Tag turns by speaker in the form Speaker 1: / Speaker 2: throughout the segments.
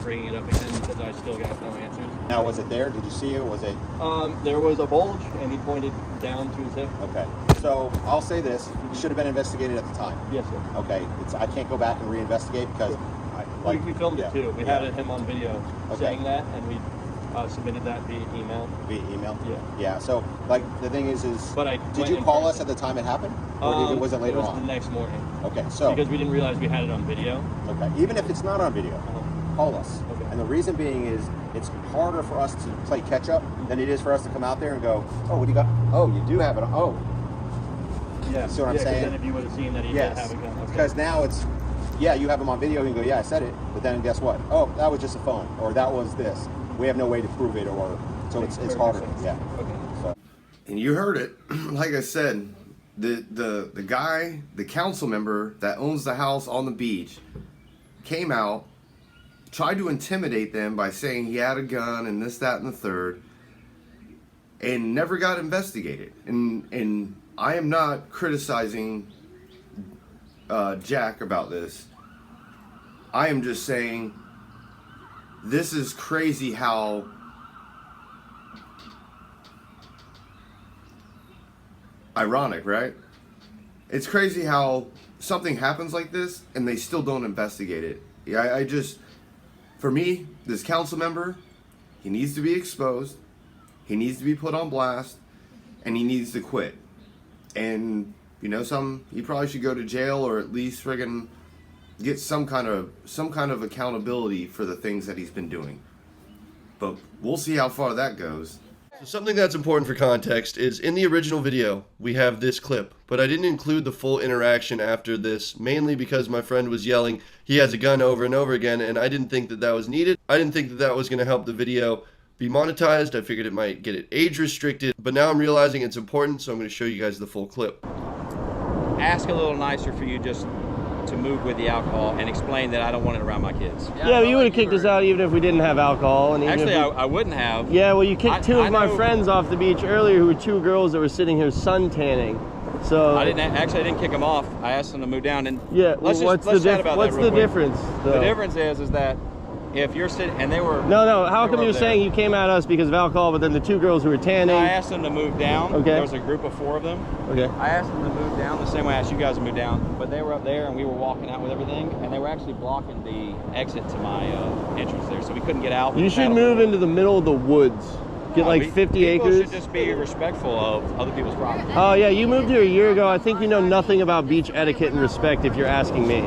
Speaker 1: bringing it up again because I still got no answers.
Speaker 2: Now, was it there? Did you see it? Was it?
Speaker 1: Um, there was a bulge, and he pointed down to his hip.
Speaker 2: Okay. So I'll say this: it should have been investigated at the time.
Speaker 1: Yes, sir.
Speaker 2: Okay. It's I can't go back and reinvestigate because I,
Speaker 1: We,
Speaker 2: like
Speaker 1: we filmed
Speaker 2: yeah,
Speaker 1: it too. We
Speaker 2: yeah,
Speaker 1: had him on video
Speaker 2: Okay.
Speaker 1: saying that, and we uh, submitted that via email.
Speaker 2: via email.
Speaker 1: Yeah.
Speaker 2: Yeah. So like the thing is, is
Speaker 1: But I
Speaker 2: did
Speaker 1: went
Speaker 2: you
Speaker 1: in
Speaker 2: call us
Speaker 1: person.
Speaker 2: at the time it happened, or did,
Speaker 1: Um,
Speaker 2: it wasn't later
Speaker 1: it was
Speaker 2: on? Oh.
Speaker 1: the next morning
Speaker 2: okay. So
Speaker 1: because we didn't realize we had it on video.
Speaker 2: okay, even if it's not on video, call us.
Speaker 1: Okay.
Speaker 2: And the reason being is it's harder for us to play catch up than it is for us to come out there and go, oh, what do you got? Oh, you do have it. on- Oh,
Speaker 1: Yeah.
Speaker 2: See what I'm
Speaker 1: yeah, 'cause
Speaker 2: saying?
Speaker 1: Then if you would have seen that he
Speaker 2: Yes,
Speaker 1: did have a gun. Okay.
Speaker 2: because now it's, yeah, you have them on video. You can go, yeah, I said it. But then guess what? Oh, that was just a phone, or that was this. We have no way to prove it, or so it's it's
Speaker 1: Perfect
Speaker 2: harder.
Speaker 1: sense.
Speaker 2: Yeah.
Speaker 1: Okay.
Speaker 2: So
Speaker 3: and you heard it like i said the the the guy the council member that owns the house on the beach came out tried to intimidate them by saying he had a gun and this that and the third and never got investigated and and i am not criticizing uh, jack about this i am just saying this is crazy how ironic, right? It's crazy how something happens like this and they still don't investigate it. Yeah, I, I just, for me, this council member, he needs to be exposed, he needs to be put on blast, and he needs to quit. And you know, some he probably should go to jail or at least friggin' get some kind of some kind of accountability for the things that he's been doing. But we'll see how far that goes.
Speaker 4: Something that's important for context is in the original video, we have this clip, but I didn't include the full interaction after this, mainly because my friend was yelling, he has a gun over and over again, and I didn't think that that was needed. I didn't think that that was going to help the video be monetized. I figured it might get it age restricted, but now I'm realizing it's important, so I'm going to show you guys the full clip.
Speaker 5: ask a little nicer for you just to move with the alcohol and explain that I don't want it around my kids.
Speaker 6: Yeah, but you would have kicked us out even if we didn't have alcohol. And even
Speaker 5: Actually,
Speaker 6: if
Speaker 5: I,
Speaker 6: we,
Speaker 5: I wouldn't have.
Speaker 6: yeah, well, you kicked
Speaker 5: I-
Speaker 6: two of
Speaker 5: I
Speaker 6: my
Speaker 5: know-
Speaker 6: friends off the beach earlier who were two girls that were sitting here suntanning. So
Speaker 5: I didn't actually. I didn't kick them off. I asked them to move down and
Speaker 6: Yeah,
Speaker 5: Let's
Speaker 6: well,
Speaker 5: just
Speaker 6: what's
Speaker 5: let's
Speaker 6: the
Speaker 5: chat
Speaker 6: dif-
Speaker 5: about
Speaker 6: what's
Speaker 5: that real
Speaker 6: the
Speaker 5: quick.
Speaker 6: difference?
Speaker 5: The
Speaker 6: though?
Speaker 5: difference is is that if you're sitting and they were
Speaker 6: No, no. How
Speaker 5: they
Speaker 6: come
Speaker 5: were
Speaker 6: you're
Speaker 5: up
Speaker 6: saying
Speaker 5: there.
Speaker 6: you came at us because of alcohol, but then the two girls who were tanning?
Speaker 5: I asked them to move down.
Speaker 6: Okay.
Speaker 5: There was a group of four of them.
Speaker 6: okay.
Speaker 5: I asked them to move down the same way I asked you guys to move down, but they were up there and we were walking out with everything, and they were actually blocking the exit to my uh, entrance there, so we couldn't get out.
Speaker 6: You should move into the middle of the woods. Get
Speaker 5: No,
Speaker 6: like
Speaker 5: we-
Speaker 6: 50
Speaker 5: people
Speaker 6: acres.
Speaker 5: should just be respectful of other people's property.
Speaker 6: Oh yeah, you moved here a year ago. I think you know nothing about beach etiquette and respect if you're asking me.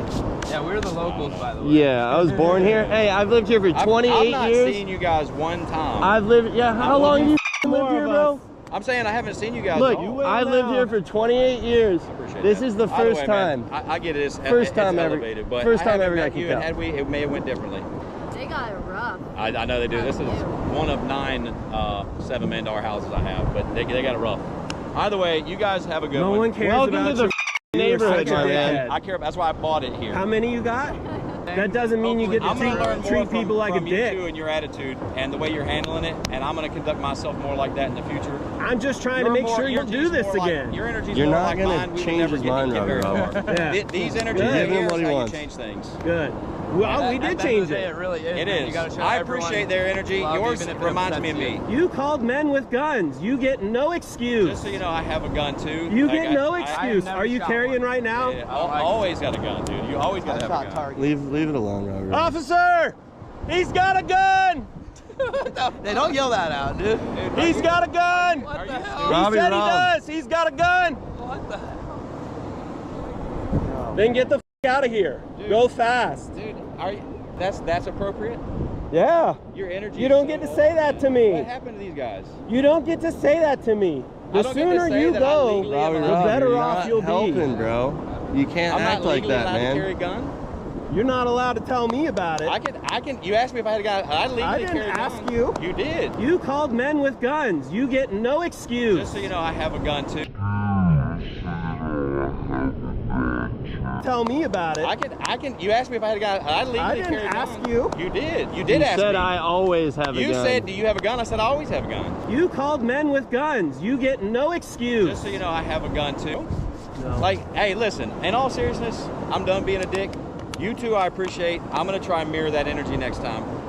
Speaker 7: Yeah, we're the locals, by the way.
Speaker 6: Yeah, I was born here. Hey, I've lived here for
Speaker 5: I've-
Speaker 6: 28
Speaker 5: I've not
Speaker 6: years.
Speaker 5: seen you guys one time.
Speaker 6: I've lived. Yeah, how long you lived here, bro?
Speaker 5: I'm saying I haven't seen you guys.
Speaker 6: Look,
Speaker 5: at all.
Speaker 6: I lived here for 28 years.
Speaker 5: I appreciate
Speaker 6: This
Speaker 5: that.
Speaker 6: is the
Speaker 5: By
Speaker 6: first
Speaker 5: way, man,
Speaker 6: time.
Speaker 5: I, I get it. It's, e-,
Speaker 6: First
Speaker 5: it's
Speaker 6: time ever-
Speaker 5: elevated, but
Speaker 6: first
Speaker 5: I
Speaker 6: time
Speaker 5: haven't
Speaker 6: ever
Speaker 5: met
Speaker 6: got
Speaker 5: you,
Speaker 6: kicked
Speaker 5: and
Speaker 6: out.
Speaker 5: had we, it may have went differently.
Speaker 8: They got it rough.
Speaker 5: I, I know they do. This is one of nine uh, seven million dollar houses I have, but they, they got it rough. Either way, you guys have a good
Speaker 7: No
Speaker 5: one.
Speaker 7: one cares
Speaker 6: Welcome
Speaker 7: about
Speaker 6: to the
Speaker 7: you. such
Speaker 6: neighborhood,
Speaker 7: a
Speaker 6: my
Speaker 7: dickhead.
Speaker 6: man.
Speaker 5: I care. about- That's why I bought it here.
Speaker 7: How many you got? That doesn't mean you get to
Speaker 5: I'm gonna
Speaker 7: treat,
Speaker 5: learn more
Speaker 7: treat
Speaker 5: from,
Speaker 7: people like a
Speaker 5: from you
Speaker 7: dick.
Speaker 5: two and your attitude and the way you're handling it, and I'm gonna conduct myself more like that in the future.
Speaker 7: I'm just trying
Speaker 5: You're
Speaker 7: to make
Speaker 5: more-
Speaker 7: sure you
Speaker 5: your
Speaker 7: don't do
Speaker 5: energy's
Speaker 7: this
Speaker 5: more like-
Speaker 7: again.
Speaker 5: your energy's
Speaker 6: You're
Speaker 5: more
Speaker 6: not
Speaker 5: like
Speaker 6: gonna
Speaker 5: mine. We would
Speaker 6: change
Speaker 5: never
Speaker 6: his
Speaker 5: get-
Speaker 6: mind,
Speaker 5: get
Speaker 6: Robbie
Speaker 5: very
Speaker 6: Robert.
Speaker 5: far.
Speaker 7: Yeah.
Speaker 5: Th- These energies
Speaker 7: Give
Speaker 5: right
Speaker 7: him
Speaker 5: here
Speaker 6: what
Speaker 5: is
Speaker 6: he
Speaker 5: how you
Speaker 6: wants.
Speaker 5: change things.
Speaker 7: Good. Well, we did change it.
Speaker 9: really is.
Speaker 5: It
Speaker 9: man.
Speaker 5: is.
Speaker 9: You gotta show
Speaker 5: I
Speaker 9: everyone
Speaker 5: appreciate their energy.
Speaker 9: love,
Speaker 5: Yours
Speaker 9: even if it
Speaker 5: reminds
Speaker 9: upsets
Speaker 5: me of
Speaker 9: you.
Speaker 5: me.
Speaker 7: You called men with guns. You get no excuse.
Speaker 5: Just so you know, I have a gun too.
Speaker 7: you
Speaker 5: Like,
Speaker 7: get
Speaker 5: I-
Speaker 7: no
Speaker 5: I-
Speaker 7: excuse.
Speaker 9: never
Speaker 7: Are you
Speaker 9: shot
Speaker 7: carrying
Speaker 9: one.
Speaker 7: right now?
Speaker 5: I, I always got a gun, dude. You always gotta have a gun.
Speaker 4: Leave leave it alone, Robert.
Speaker 6: Oh, Officer, he's got a gun.
Speaker 9: They don't yell that out, dude.
Speaker 6: He's got a gun.
Speaker 9: What the
Speaker 6: He
Speaker 9: hell?
Speaker 6: said he does. He's got a gun.
Speaker 9: What the hell?
Speaker 6: Then get the f- out of here. Go fast.
Speaker 5: Dude, are you, that's that's appropriate.
Speaker 6: Yeah.
Speaker 5: Your energy.
Speaker 6: You
Speaker 5: is
Speaker 6: don't
Speaker 5: so
Speaker 6: get to
Speaker 5: low,
Speaker 6: say that
Speaker 5: man.
Speaker 6: to me.
Speaker 5: What happened to these guys?
Speaker 6: You don't get to say that to me.
Speaker 5: I
Speaker 6: The
Speaker 5: don't get to
Speaker 6: sooner
Speaker 5: say
Speaker 6: you
Speaker 5: that I
Speaker 6: go,
Speaker 5: legally am
Speaker 6: the
Speaker 5: allowed-
Speaker 6: better
Speaker 4: you're
Speaker 6: off
Speaker 4: not
Speaker 6: you'll
Speaker 4: helping,
Speaker 6: be.
Speaker 4: bro. You can't
Speaker 5: I'm
Speaker 4: act
Speaker 5: not
Speaker 4: like
Speaker 5: legally
Speaker 4: that,
Speaker 5: allowed
Speaker 4: man.
Speaker 5: to carry a gun.
Speaker 6: You're not allowed to tell me about it.
Speaker 5: I can. I can. You asked me if I had a gun. I legally
Speaker 7: I didn't
Speaker 5: carry a gun.
Speaker 7: ask you.
Speaker 5: You did.
Speaker 7: You called men with guns. You get no excuse.
Speaker 5: Just so you know, I have a gun too.
Speaker 7: tell me about it.
Speaker 5: I can. I can. You asked me if I had a gun. I legally
Speaker 7: I didn't
Speaker 5: carry a gun.
Speaker 7: ask you.
Speaker 5: You did. You did
Speaker 6: you
Speaker 5: ask
Speaker 6: said
Speaker 5: me.
Speaker 6: I always have a
Speaker 5: you
Speaker 6: gun.
Speaker 5: said, "Do you have a gun?" I said, "I always have a gun."
Speaker 7: You called men with guns. You get no excuse.
Speaker 5: Just so you know, I have a gun too. Like, hey, listen. In all seriousness, I'm done being a dick. You two, I appreciate. I'm gonna try and mirror that energy next time.